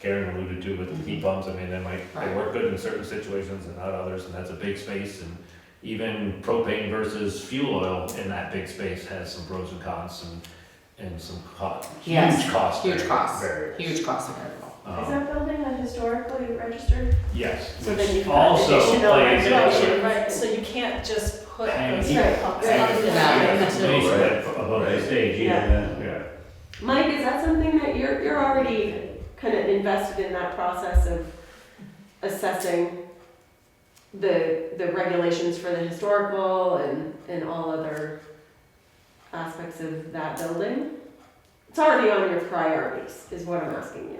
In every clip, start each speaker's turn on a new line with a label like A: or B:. A: Karen alluded to with the heat pumps, I mean, they might, they
B: Right.
A: work good in certain situations and not others, and that's a big space, and even propane versus fuel oil in that big space has some pros and cons and, and some co-
B: Yes,
A: huge cost.
B: Huge
A: vari-
B: costs,
A: variables.
B: huge costs are variable.
C: Is
A: Um,
C: that building a historically registered?
A: yes,
C: So then
A: which
C: you've got
A: also
C: additional
A: plays into
C: regulation.
A: it.
D: Right, so you can't just put
A: Hang
D: those
A: heat.
D: heat pumps
C: Right.
D: up to
B: Yeah.
D: that.
A: Nice, but Above the
E: Right.
A: stage, yeah, yeah.
C: Mike, is that something that you're, you're already kind of invested in that process of assessing the, the regulations for the historical and, and all other aspects of that building? It's already on your priorities, is what I'm asking you,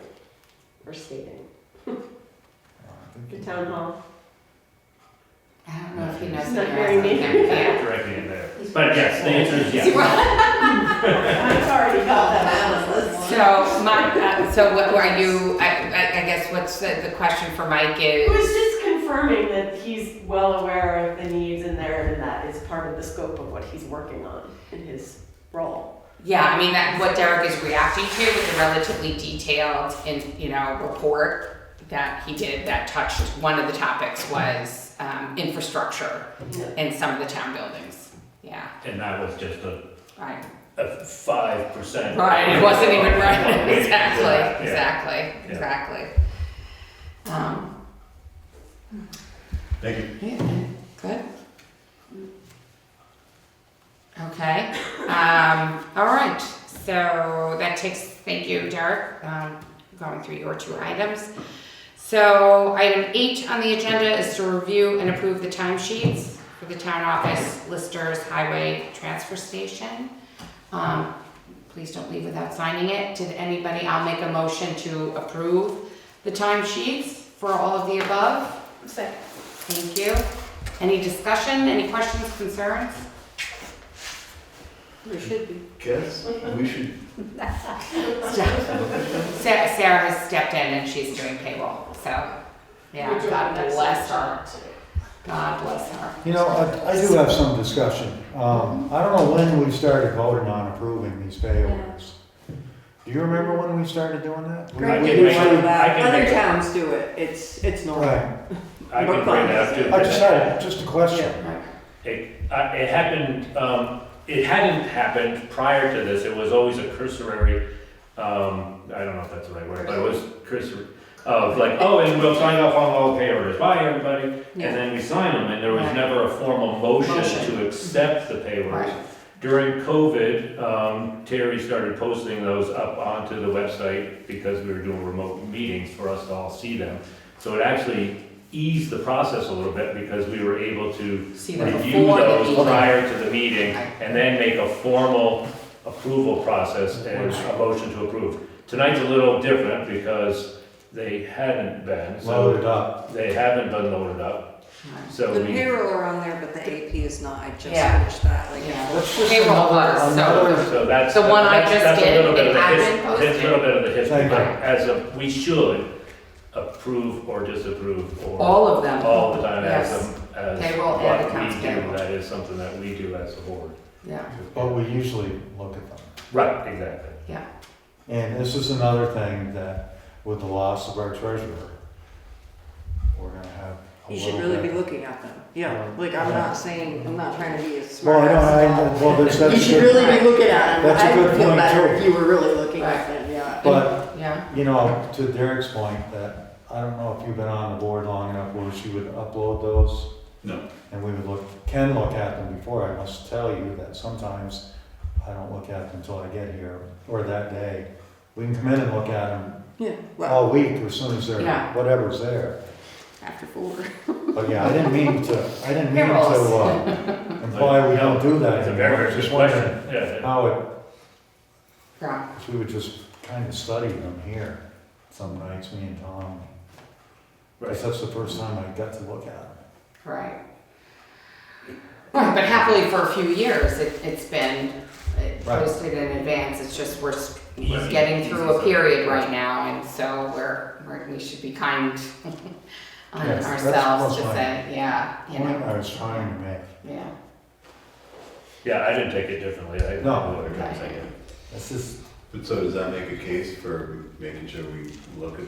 C: or stating. The town hall,
B: I don't know if he knows.
C: He's
B: the
C: not
B: answer.
C: hearing me.
B: Yeah.
A: Directly in there, but yes, the answer is yes.
C: I've already got that on the list.
B: So my, uh, so what are you, I, I I guess what's the, the question for Mike
C: It was
B: is,
C: just confirming that he's well aware of the needs in there and that is part of the scope of what he's working on in his role.
B: yeah, I mean, that, what Derek is reacting to is a relatively detailed and, you know, report that he did that touched, one of the topics was, um, infrastructure in some of the town buildings. Yeah,
A: And that was just a
B: right.
A: a five percent.
B: Right, it wasn't even right,
A: Yeah.
B: exactly, exactly, exactly. Um,
E: Thank you.
B: good. Okay, um, all right, so that takes, thank you, Derek, um, going through your two items. So item eight on the agenda is to review and approve the timesheets for the town office, listers, highway, transfer station. Um, please don't leave without signing it. Did anybody, I'll make a motion to approve the timesheets for all of the above.
D: Second.
B: Thank you. Any discussion, any questions, concerns?
C: There should be.
E: Guess we should
B: Sa- Sarah has stepped in and she's doing payroll, so, yeah, God bless her. God bless her.
F: You know, I I do have some discussion. Um, I don't know when we started voting on approving these pay orders. Do you remember when we started doing that? We-
A: I
G: Greg
A: can
F: we
G: did
A: make-
F: usually-
G: one of that.
A: I can
G: Other
A: make-
G: towns do it. It's, it's normal.
F: Right.
A: I can bring that up too.
F: I just had, just a question.
A: It, uh, it happened, um, it hadn't happened prior to this, it was always a cursory, um, I don't know if that's the right word, but it was cursory. Of like, oh, and we'll sign off on all pay orders, bye everybody, and
B: Yeah.
A: then we sign them, and there was
B: Right.
A: never a formal motion
B: Motion.
A: to accept the pay orders.
B: Right.
A: During COVID, um, Terry started posting those up onto the website because we were doing remote meetings for us to all see them. So it actually eased the process a little bit because we were able to
B: See them
A: review
B: before the
A: those
B: meeting.
A: prior to the meeting and then make a formal approval process and a motion to approve. Tonight's a little different because they hadn't been,
F: Load it
A: so
F: up.
A: they haven't been loaded up. So
G: The
A: we,
G: payroll are on there, but the AP is not. I just
B: Yeah.
G: finished that, like,
B: Yeah.
F: That's just
B: Payroll
F: another-
B: was, so-
F: another
A: so that's.
B: The one I
A: that's-
B: just
A: that's a
B: did,
A: little bit
B: it
A: of the
B: had
A: his-
B: been
A: That's a little bit of the history,
F: Thank
A: but
B: you.
A: as of, we should approve or disapprove or
B: All of them.
A: all the time as,
B: Yes.
A: a- as.
B: Payroll and
A: what we
B: accounts
A: do.
B: payable.
A: That is something that we do as a board.
B: Yeah,
F: But we usually look at them.
A: Right, exactly.
F: And this is another thing that with the loss of our treasurer, we're gonna have a
G: you should
F: little
G: really
F: bit-
G: be looking at them. Yeah,
F: Yeah.
G: like, I'm
F: Yeah.
G: not saying, I'm not trying to be as
F: Well,
G: smart
F: I don't,
G: as
F: I, well, that's,
G: You
F: that's
G: should
F: good,
G: really be looking at them.
F: That's a
G: I
F: good
G: would feel
F: point,
G: better if
F: too.
G: you were really looking at them, yeah.
F: but
B: yeah,
F: You know, to Derek's point, that, I don't know if you've been on the board long enough where she would upload those.
E: No.
F: And we would look, can look at them before, I must tell you that sometimes I don't look at them until I get here, or that day. We can come in and look at them
G: Yeah, well,
F: all week as soon as they're,
B: Yeah.
F: whatever's there.
G: after four.
F: But yeah, I didn't mean to, I didn't mean to, uh, imply we don't do that
A: It's a very
F: anymore,
A: very good
F: just wondering
A: question, yeah.
F: how it,
B: yeah.
F: if we would just kind of study them here some nights, me and Tom.
A: Right.
F: Because that's the first time I got to look at it.
B: Right. Right, but happily for a few years, it, it's been uh,
F: Right.
B: posted in advance, it's just we're, s- we're
A: Easy-
B: getting through a
A: easy.
B: period right now, and so we're, we're, we should be kind on
F: Yes, that's
B: ourselves to
F: what's
B: say, yeah, you
F: Point
B: know,
F: I was trying to make.
B: yeah.
A: Yeah, I didn't take it differently, I.
F: No.
A: I didn't take it.
F: This is
E: But so does that make a case for making sure we look at